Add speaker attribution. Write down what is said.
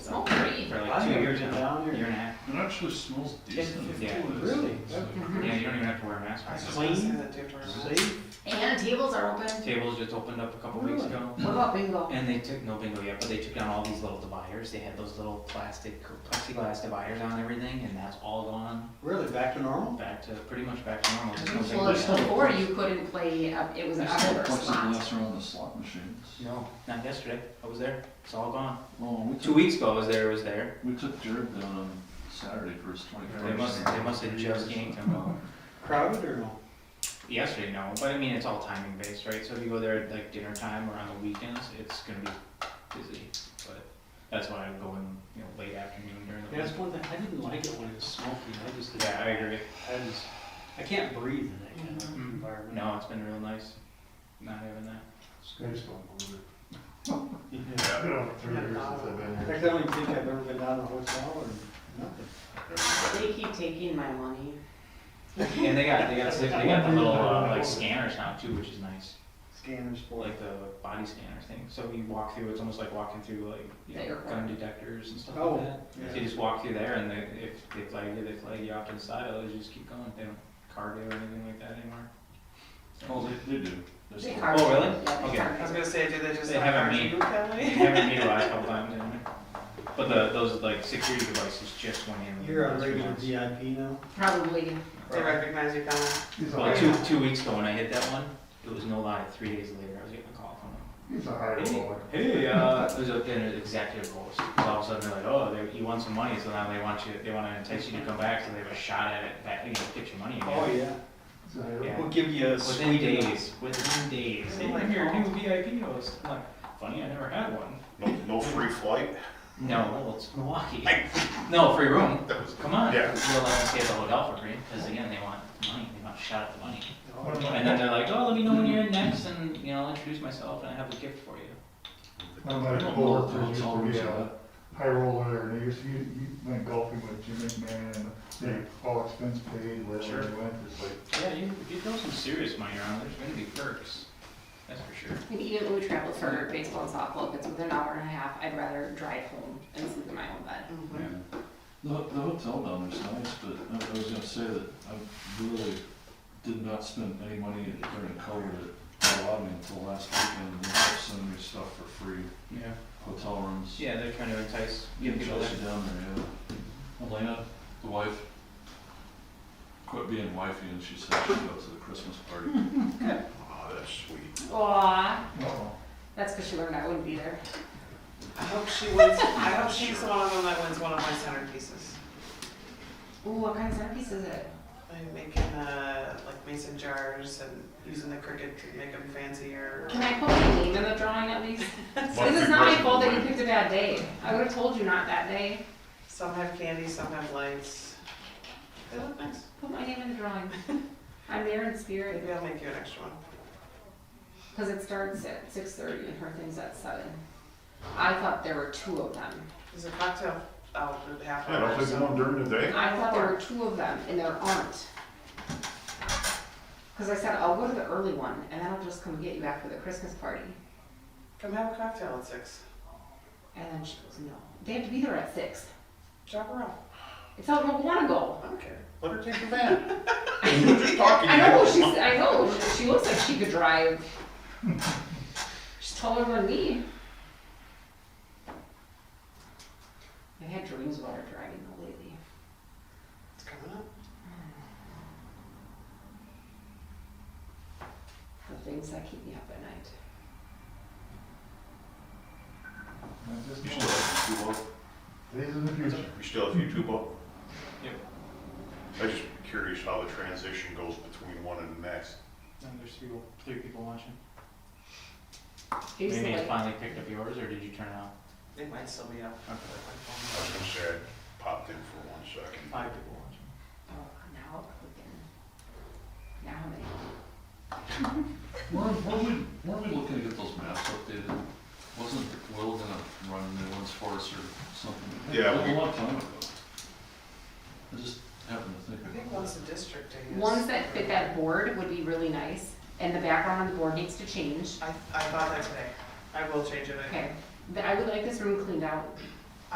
Speaker 1: years in town, year and a half.
Speaker 2: It actually smells decent.
Speaker 1: Yeah.
Speaker 3: Really?
Speaker 1: Yeah, you don't even have to wear a mask.
Speaker 3: I was
Speaker 1: It's
Speaker 3: just gonna say
Speaker 1: clean.
Speaker 3: that too, for a minute.
Speaker 1: Safe.
Speaker 4: And tables are open.
Speaker 1: Tables just opened up a couple weeks
Speaker 3: Really?
Speaker 1: ago.
Speaker 4: What about bingo?
Speaker 1: And they took, no bingo yet, but they took down all these little dividers. They had those little plastic, plexiglass dividers on everything, and that's all gone
Speaker 3: Really, back to normal?
Speaker 1: back to, pretty much back to normal. There's no bingo
Speaker 4: Well,
Speaker 1: yet.
Speaker 4: before you couldn't play, uh, it was an
Speaker 2: They still
Speaker 4: outdoor
Speaker 2: have
Speaker 4: spot.
Speaker 2: plexiglass around the slot machines.
Speaker 1: No, not yesterday. I was there. It's all gone.
Speaker 2: Oh, we
Speaker 1: Two
Speaker 2: took,
Speaker 1: weeks ago I was there, it was there.
Speaker 2: we took Jared down on Saturday for his twenty-first.
Speaker 1: They must, they must have just gained him uh,
Speaker 3: Crowded or no?
Speaker 1: yesterday, no, but I mean, it's all timing based, right? So if you go there at like dinner time or on the weekends, it's gonna be busy, but that's why I go in, you know, late afternoon during the
Speaker 3: That's
Speaker 1: week.
Speaker 3: one thing, I didn't like it when it was smoky, I just. didn't-
Speaker 1: Yeah, I agree.
Speaker 3: I just, I can't breathe in that kind of
Speaker 1: Mhm.
Speaker 3: environment.
Speaker 1: No, it's been real nice not having that.
Speaker 5: I just don't believe it.
Speaker 3: Yeah.
Speaker 5: I've been on for three years since I've
Speaker 3: I
Speaker 5: been here.
Speaker 3: think the only thing I've ever been down to a hotel or nothing.
Speaker 4: They keep taking my money.
Speaker 1: And they got, they got, they got the little, uh, like scanners now too, which is nice,
Speaker 3: Scanners for
Speaker 1: like the body scanner thing. So you walk through, it's almost like walking through like,
Speaker 4: The
Speaker 1: you know,
Speaker 4: airport.
Speaker 1: gun detectors and stuff
Speaker 3: Oh,
Speaker 1: like that. So you
Speaker 3: yeah.
Speaker 1: just walk through there and they, if they flag you, they flag you off to the side, otherwise you just keep going, they don't card you or anything like that anymore.
Speaker 2: Oh, they, they do. They're
Speaker 4: They
Speaker 2: still-
Speaker 4: are-
Speaker 1: Oh, really?
Speaker 4: yeah, they
Speaker 1: Okay.
Speaker 4: are.
Speaker 3: I was gonna say, do they just
Speaker 1: They
Speaker 3: like
Speaker 1: haven't
Speaker 3: hire
Speaker 1: made-
Speaker 3: you that way?
Speaker 1: Haven't utilized a couple times, haven't we? But the, those like security devices just went in.
Speaker 3: You're a
Speaker 1: last few
Speaker 3: regular
Speaker 1: months.
Speaker 3: VIP now?
Speaker 4: Probably.
Speaker 6: They recognize you coming.
Speaker 5: He's a
Speaker 1: Well,
Speaker 5: hard,
Speaker 1: two, two weeks ago when I hit that one, it was no lie, three days later, I was getting a call from them.
Speaker 5: he's a hard
Speaker 1: Hey,
Speaker 5: boy.
Speaker 1: hey, uh, it was up in an executive roles. All of a sudden, they're like, oh, they, you want some money, so now they want you, they wanna entice you to come back, so they have a shot at it, back, you know, get your money again.
Speaker 3: Oh, yeah.
Speaker 5: He's a hard
Speaker 1: Yeah.
Speaker 3: We'll give you a
Speaker 1: Within
Speaker 3: sweet
Speaker 1: days, within days,
Speaker 3: Oh
Speaker 1: hey,
Speaker 3: my
Speaker 1: I'm your new VIP host. I'm like, funny, I never had one.
Speaker 7: No, no free flight?
Speaker 1: No, well, it's Milwaukee. No, free room.
Speaker 7: That was,
Speaker 1: Come on.
Speaker 7: Yeah.
Speaker 1: We'll let them stay at the hotel for free, because again, they want money, they want a shot at the money.
Speaker 3: Oh, yeah.
Speaker 1: And then they're like, oh, let me know when you're in next, and, you know, I'll introduce myself, and I have a gift for you.
Speaker 5: My my coworkers used to be a high roller, and they used to, he, he went golfing with Jim McMahon, and they all expense
Speaker 1: Sure.
Speaker 5: paid, wherever he went, it's like,
Speaker 1: Yeah, you, if you throw some serious money around, there's gonna be perks, that's for sure.
Speaker 4: And even when we travel for baseball and softball, if it's within an hour and a half, I'd rather drive home and sleep in my own bed.
Speaker 2: Mm-hmm. The, the hotel down there's nice, but I, I was gonna say that I really did not spend any money during COVID that allowed me until last weekend, and they kept sending me stuff for free,
Speaker 1: Yeah.
Speaker 2: hotel rooms.
Speaker 1: Yeah, they're trying to entice
Speaker 2: Yeah,
Speaker 1: young people there.
Speaker 2: Chelsea down there, yeah. Elena, the wife, quit being wifey and she said she'd go to the Christmas party.
Speaker 7: oh, that's sweet.
Speaker 4: Aw,
Speaker 5: uh-oh.
Speaker 4: that's because she learned I wouldn't be there.
Speaker 6: I hope she wins, I hope she's the one of them that wins one of my centerpieces.
Speaker 4: Ooh, what kind of centerpiece is it?
Speaker 6: I'm making, uh, like mason jars and using the cricket to make them fancier.
Speaker 4: Can I put my name in the drawing at least?
Speaker 7: Monthly
Speaker 4: This is not my
Speaker 7: person
Speaker 4: fault that you
Speaker 7: win.
Speaker 4: picked a bad day. I would have told you not that day.
Speaker 6: Some have candy, some have lights. They look nice.
Speaker 4: Put my name in the drawing. I'm there in spirit.
Speaker 6: Maybe I'll make you an extra one.
Speaker 4: Because it starts at six thirty and her thing's at seven. I thought there were two of them.
Speaker 6: There's a cocktail out in half
Speaker 7: I don't
Speaker 6: hour,
Speaker 7: think they
Speaker 6: so.
Speaker 7: want during the day.
Speaker 4: I thought there were two of them and there aren't. Because I said, I'll go to the early one and then I'll just come get you after the Christmas party.
Speaker 6: Come have a cocktail at six.
Speaker 4: And then she goes, no, they have to be there at six.
Speaker 6: Drop her off.
Speaker 4: It's how I want to go.
Speaker 6: I don't care.
Speaker 7: Let her take the van. We're just talking.
Speaker 4: I know,
Speaker 7: you
Speaker 4: she's, I know, she- she looks like she could drive. She's taller than me. I've had dreams about her driving though lately.
Speaker 6: It's coming up.
Speaker 4: the things that keep me up at night.
Speaker 5: I just
Speaker 7: You
Speaker 5: know
Speaker 7: still have YouTube
Speaker 5: Days in the future.
Speaker 7: up? You still have YouTube up?
Speaker 1: Yep.
Speaker 7: I'm just curious how the transition goes between one and the next.
Speaker 1: And there's three, three people watching.
Speaker 4: He was
Speaker 1: Maybe it
Speaker 4: like,
Speaker 1: finally picked up yours, or did you turn it off?
Speaker 6: It might still be up.
Speaker 1: Okay.
Speaker 7: I was gonna say, I popped in for one second.
Speaker 1: Five people watching.
Speaker 4: oh, now we can. Now how many?
Speaker 2: Were, were we, were we looking to get those maps updated? Wasn't Will gonna run new ones for us or something?
Speaker 7: Yeah,
Speaker 2: A
Speaker 7: we-
Speaker 2: long time ago. I just happened to think
Speaker 6: I think
Speaker 2: of
Speaker 6: once the district is.
Speaker 4: Ones that fit that board would be really nice, and the background on the board needs to change.
Speaker 6: I, I thought that today. I will change it. I-
Speaker 4: Okay, but I would like this room cleaned out.